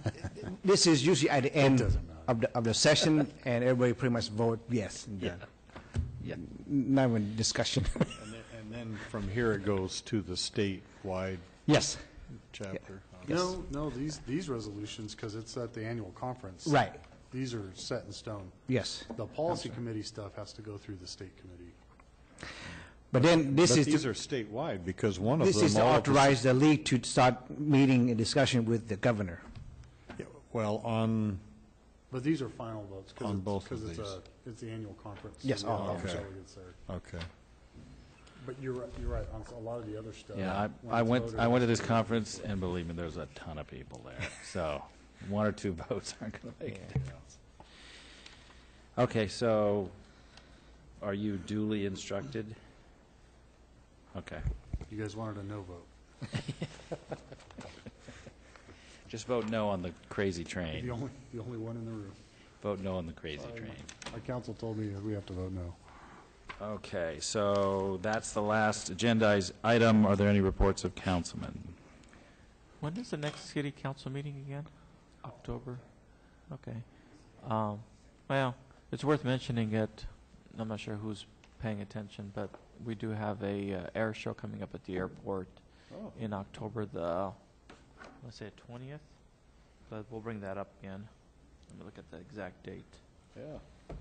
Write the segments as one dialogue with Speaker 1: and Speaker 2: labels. Speaker 1: This is usually at the end
Speaker 2: doesn't matter.
Speaker 1: of the, of the session, and everybody pretty much vote yes. and then-
Speaker 3: Yeah.
Speaker 1: Not even discussion.
Speaker 2: And then- And then from here it goes to the statewide
Speaker 1: Yes,
Speaker 2: chapter. Okay.
Speaker 4: No, no, these, these resolutions, because it's at the annual conference.
Speaker 1: Right.
Speaker 4: These are set in stone.
Speaker 1: yes.
Speaker 4: The policy committee stuff has to go through the state committee.
Speaker 1: But then this
Speaker 2: But
Speaker 1: is,
Speaker 2: these
Speaker 1: to-
Speaker 2: are statewide, because one of them.
Speaker 1: this is to
Speaker 2: all of the-
Speaker 1: authorize the league to start meeting and discussion with the governor.
Speaker 2: Yeah, Well, on,
Speaker 4: But these are final votes. 'cause
Speaker 2: On
Speaker 4: it's-
Speaker 2: both of
Speaker 4: 'cause it's
Speaker 2: these.
Speaker 4: a- It's the annual conference. so
Speaker 1: Yes,
Speaker 4: the other
Speaker 1: oh,
Speaker 2: okay.
Speaker 4: delegates there.
Speaker 2: okay.
Speaker 4: But you're, right- you're right, on a lot of the other stuff.
Speaker 3: Yeah,
Speaker 4: when
Speaker 3: I, I
Speaker 4: it's
Speaker 3: went,
Speaker 4: voted
Speaker 3: I
Speaker 4: on,
Speaker 3: went to this
Speaker 4: it's-
Speaker 3: conference, and believe me, there's a ton of people there. So one or two votes aren't going to make a difference. Okay, so are you duly instructed? Okay,
Speaker 4: You guys wanted a no vote.
Speaker 3: just vote no on the crazy
Speaker 4: The
Speaker 3: train.
Speaker 4: only, the only one in the room.
Speaker 3: Vote no on the crazy train.
Speaker 4: Our council told me we have to vote no.
Speaker 3: Okay, so that's the last agenda item. Are there any reports of councilmen?
Speaker 5: When is the next city council meeting again? October? Okay. Um, Well, it's worth mentioning it, I'm not sure who's paying attention, but we do have a uh, air show coming up at the airport
Speaker 2: Oh.
Speaker 5: in October, the, let's say, 20th? But we'll bring that up again. Let me look at the exact date.
Speaker 2: Yeah.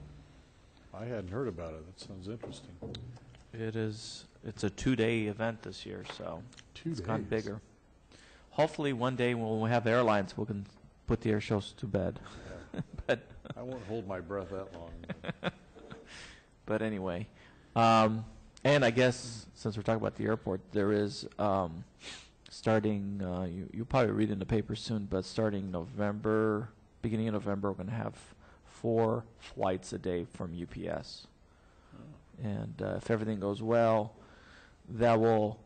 Speaker 2: I hadn't heard about it. That sounds interesting.
Speaker 5: It is, it's a two-day event this year, so
Speaker 4: Two
Speaker 5: it's gotten
Speaker 4: days.
Speaker 5: bigger. Hopefully, one day when we have airlines, we can put the air shows to bed.
Speaker 2: I won't hold my breath that long.
Speaker 5: But anyway, um, and I guess since we're talking about the airport, there is um, starting. Uh, you you'll probably read in the paper soon, but starting November, beginning of November, we're going to have four flights a day from UPS, and uh, if everything goes well, that will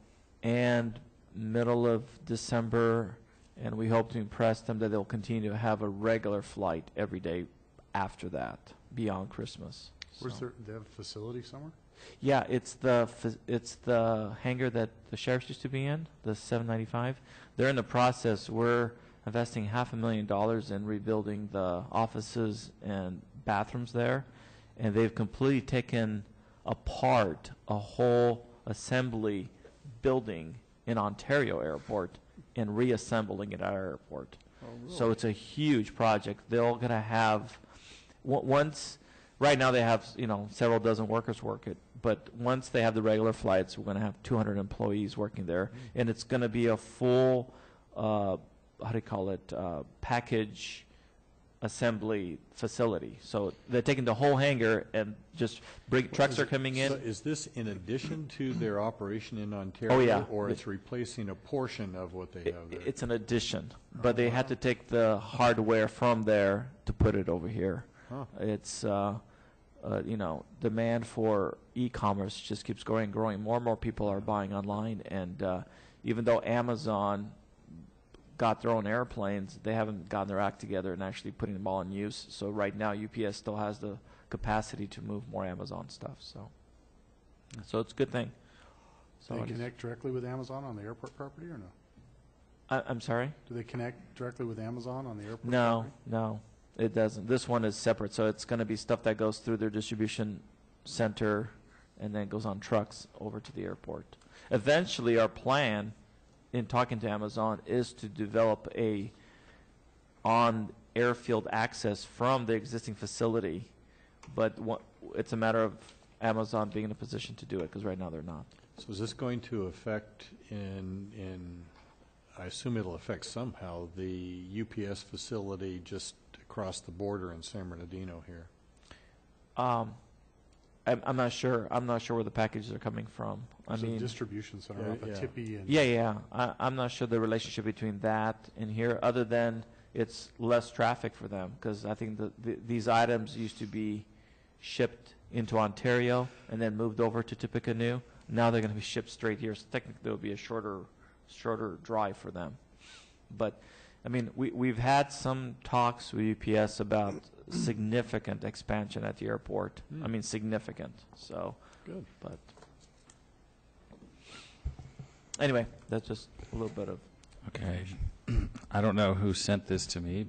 Speaker 5: end middle of December, and we hope to impress them that they'll continue to have a regular flight every day after that, beyond Christmas.
Speaker 4: Where's
Speaker 5: So-
Speaker 4: their, they have a facility somewhere?
Speaker 5: yeah, it's the phys- it's the hangar that the sheriffs used to be in, the 795. They're in the process. We're investing half a million dollars in rebuilding the offices and bathrooms there, and they've completely taken apart a whole assembly building in Ontario Airport and reassembling it at our airport. So it's a huge project. They're going to have, o- once, right now they have, you know, several dozen workers work it, but once they have the regular flights, we're going to have 200 employees working there. And it's going to be a full, uh, how do you call it, uh, package assembly facility. So they're taking the whole hangar and just bring, trucks are coming
Speaker 2: So
Speaker 5: in.
Speaker 2: is this in addition to their operation in Ontario?
Speaker 5: yeah.
Speaker 2: Or it's replacing a portion of what they
Speaker 5: I-
Speaker 2: have there?
Speaker 5: It's an addition, but they had to take the hardware from there to put it over here.
Speaker 2: Huh.
Speaker 5: It's, uh, uh, you know, demand for e-commerce just keeps growing, and growing. More and more people are buying online, and uh, even though Amazon got their own airplanes, they haven't gotten their act together and actually putting them all in use. So right now, UPS still has the capacity to move more Amazon stuff. So, so it's a good thing. So
Speaker 4: They
Speaker 5: it is-
Speaker 4: connect directly with Amazon on the airport property or no?
Speaker 5: I, I'm sorry.
Speaker 4: Do they connect directly with Amazon on the airport?
Speaker 5: No,
Speaker 4: property?
Speaker 5: no, it doesn't. This one is separate, so it's going to be stuff that goes through their distribution center and then goes on trucks over to the airport. Eventually, our plan in talking to Amazon is to develop a on airfield access from the existing facility, but wha- it's a matter of Amazon being in a position to do it because right now they're not.
Speaker 2: So is this going to affect in, in, I assume it'll affect somehow, the UPS facility just across the border in San Bernardino here?
Speaker 5: Um, I'm, I'm not sure. I'm not sure where the packages are coming from. I
Speaker 4: There's a
Speaker 5: mean,
Speaker 4: distribution center
Speaker 2: Yeah,
Speaker 4: up at
Speaker 2: yeah.
Speaker 4: Tippy and.
Speaker 5: Yeah, yeah. I, I'm not sure the relationship between that and here, other than it's less traffic for them, because I think the, the, these items used to be shipped into Ontario and then moved over to Tippecanoe. Now they're going to be shipped straight here, so technically it'll be a shorter, shorter drive for them. But, I mean, we, we've had some talks with UPS about significant expansion at the airport. I
Speaker 2: Hmm.
Speaker 5: mean, significant, so,
Speaker 2: Good.
Speaker 5: but. Anyway, that's just a little bit of
Speaker 3: Okay. I don't know who sent this to me,